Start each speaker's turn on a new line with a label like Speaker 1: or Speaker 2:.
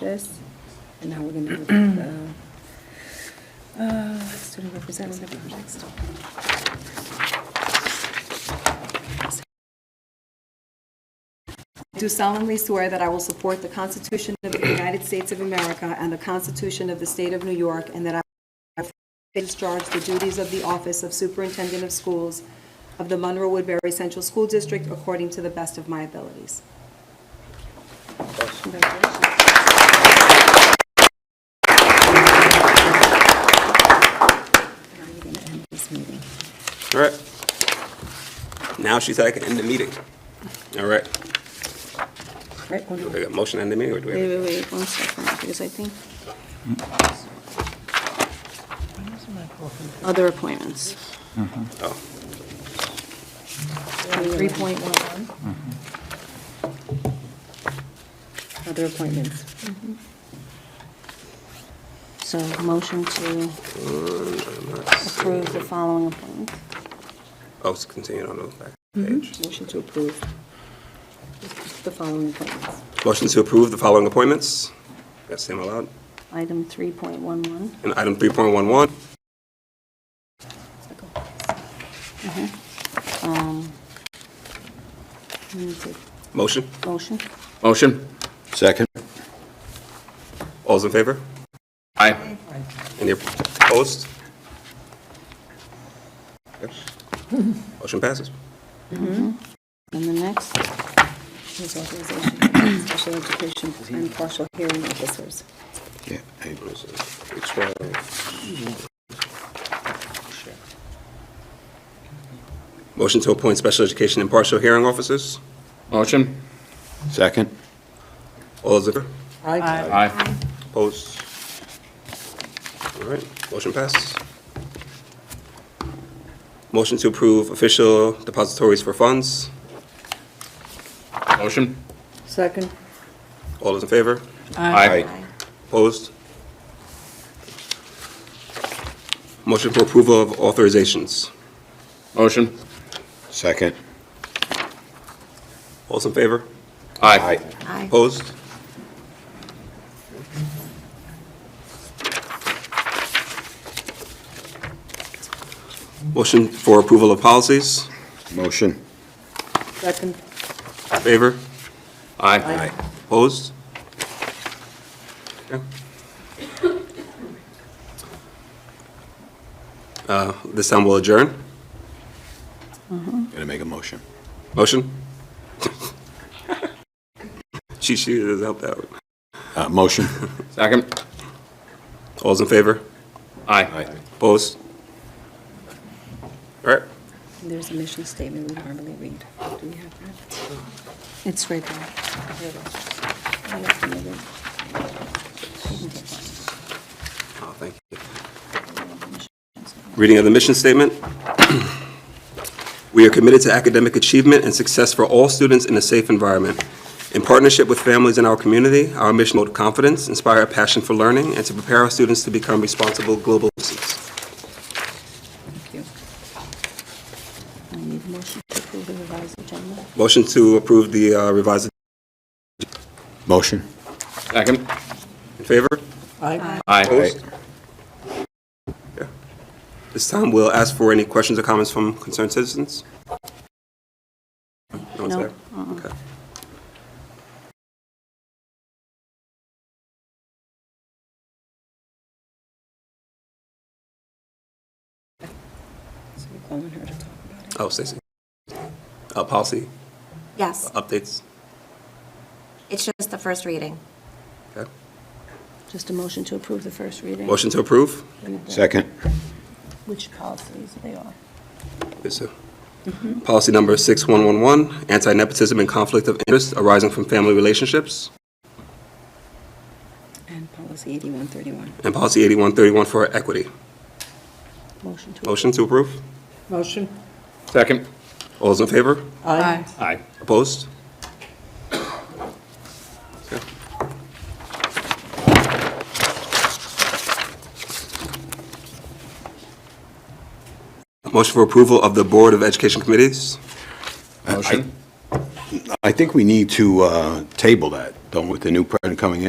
Speaker 1: this, and now we're gonna do the, uh, student representative next.
Speaker 2: Do solemnly swear that I will support the Constitution of the United States of America and the Constitution of the State of New York, and that I will discharge the duties of the office of Superintendent of Schools of the Monroe Woodbury Central School District according to the best of my abilities.
Speaker 1: And I'm gonna end this meeting.
Speaker 3: All right. Now she said I can end the meeting. All right.
Speaker 1: Right, hold
Speaker 3: Do
Speaker 1: on.
Speaker 3: we have a motion to end the meeting? or do we have-
Speaker 1: Wait, wait, wait, one second, because I think. Other appointments.
Speaker 3: Oh,
Speaker 2: 3.11.
Speaker 1: Other appointments.
Speaker 4: So motion to approve the following appointments.
Speaker 3: oh, it's continued on the back page.
Speaker 1: Motion to approve the following appointments.
Speaker 3: Motion to approve the following appointments. That's same allowed.
Speaker 4: Item 3.11.
Speaker 3: And item 3.11,
Speaker 4: We need to-
Speaker 3: motion.
Speaker 4: Motion.
Speaker 5: Motion? Second.
Speaker 3: All's in favor?
Speaker 5: Aye.
Speaker 3: Any opposed? Okay. Motion passes.
Speaker 4: And the next,
Speaker 1: His authorization, special education and partial hearing officers.
Speaker 5: Yeah.
Speaker 3: Which one? Motion to appoint special education and partial hearing officers.
Speaker 5: Motion? Second.
Speaker 3: All those in favor?
Speaker 5: Aye.
Speaker 3: Opposed? All right, motion passes. Motion to approve official depositories for funds.
Speaker 5: Motion?
Speaker 1: Second.
Speaker 3: All those in favor?
Speaker 5: Aye.
Speaker 3: Opposed? Motion for approval of authorizations.
Speaker 5: Motion? Second.
Speaker 3: All those in favor?
Speaker 5: Aye.
Speaker 3: Opposed? Motion for approval of policies.
Speaker 5: Motion?
Speaker 1: Second.
Speaker 3: Favor?
Speaker 5: Aye.
Speaker 3: Opposed? Okay. Uh, This time we'll adjourn.
Speaker 5: Gonna make a motion.
Speaker 3: Motion? She, she has helped out.
Speaker 5: Uh, motion? Second.
Speaker 3: All's in favor?
Speaker 5: Aye.
Speaker 3: Opposed? All right.
Speaker 1: There's a mission statement we normally read. Do we have that?
Speaker 4: it's right there.
Speaker 1: Here it is.
Speaker 3: Oh, thank you. Reading of the mission statement. We are committed to academic achievement and success for all students in a safe environment. In partnership with families in our community, our mission will build confidence, inspire a passion for learning, and to prepare our students to become responsible global citizens.
Speaker 1: Thank
Speaker 4: I
Speaker 1: you.
Speaker 4: need a motion to approve the revised agenda.
Speaker 3: Motion to approve the uh, revised,
Speaker 5: Motion? Second.
Speaker 3: in favor?
Speaker 5: Aye.
Speaker 3: Opposed? Yeah. This time, we'll ask for any questions or comments from concerned citizens. No one's
Speaker 4: No,
Speaker 3: there? Okay.
Speaker 1: So we're calling her to talk about it.
Speaker 3: Oh, Stacy. Uh, Policy
Speaker 6: Yes,
Speaker 3: updates.
Speaker 6: it's just the first reading.
Speaker 3: Okay.
Speaker 4: Just a motion to approve the first reading.
Speaker 3: Motion to approve?
Speaker 5: Second.
Speaker 4: Which policies they are.
Speaker 3: Yes, sir. Policy number 6111, anti-nepotism and conflict of interest arising from family relationships.
Speaker 1: And policy 8131.
Speaker 3: And policy 8131 for equity.
Speaker 4: Motion to.
Speaker 3: Motion to approve?
Speaker 1: Motion.
Speaker 5: Second.
Speaker 3: All those in favor?
Speaker 1: Aye.
Speaker 5: Aye.
Speaker 3: Opposed? Okay. Motion for approval of the Board of Education Committees.
Speaker 5: Motion? I think we need to, uh, table that, don't, with the new president coming in.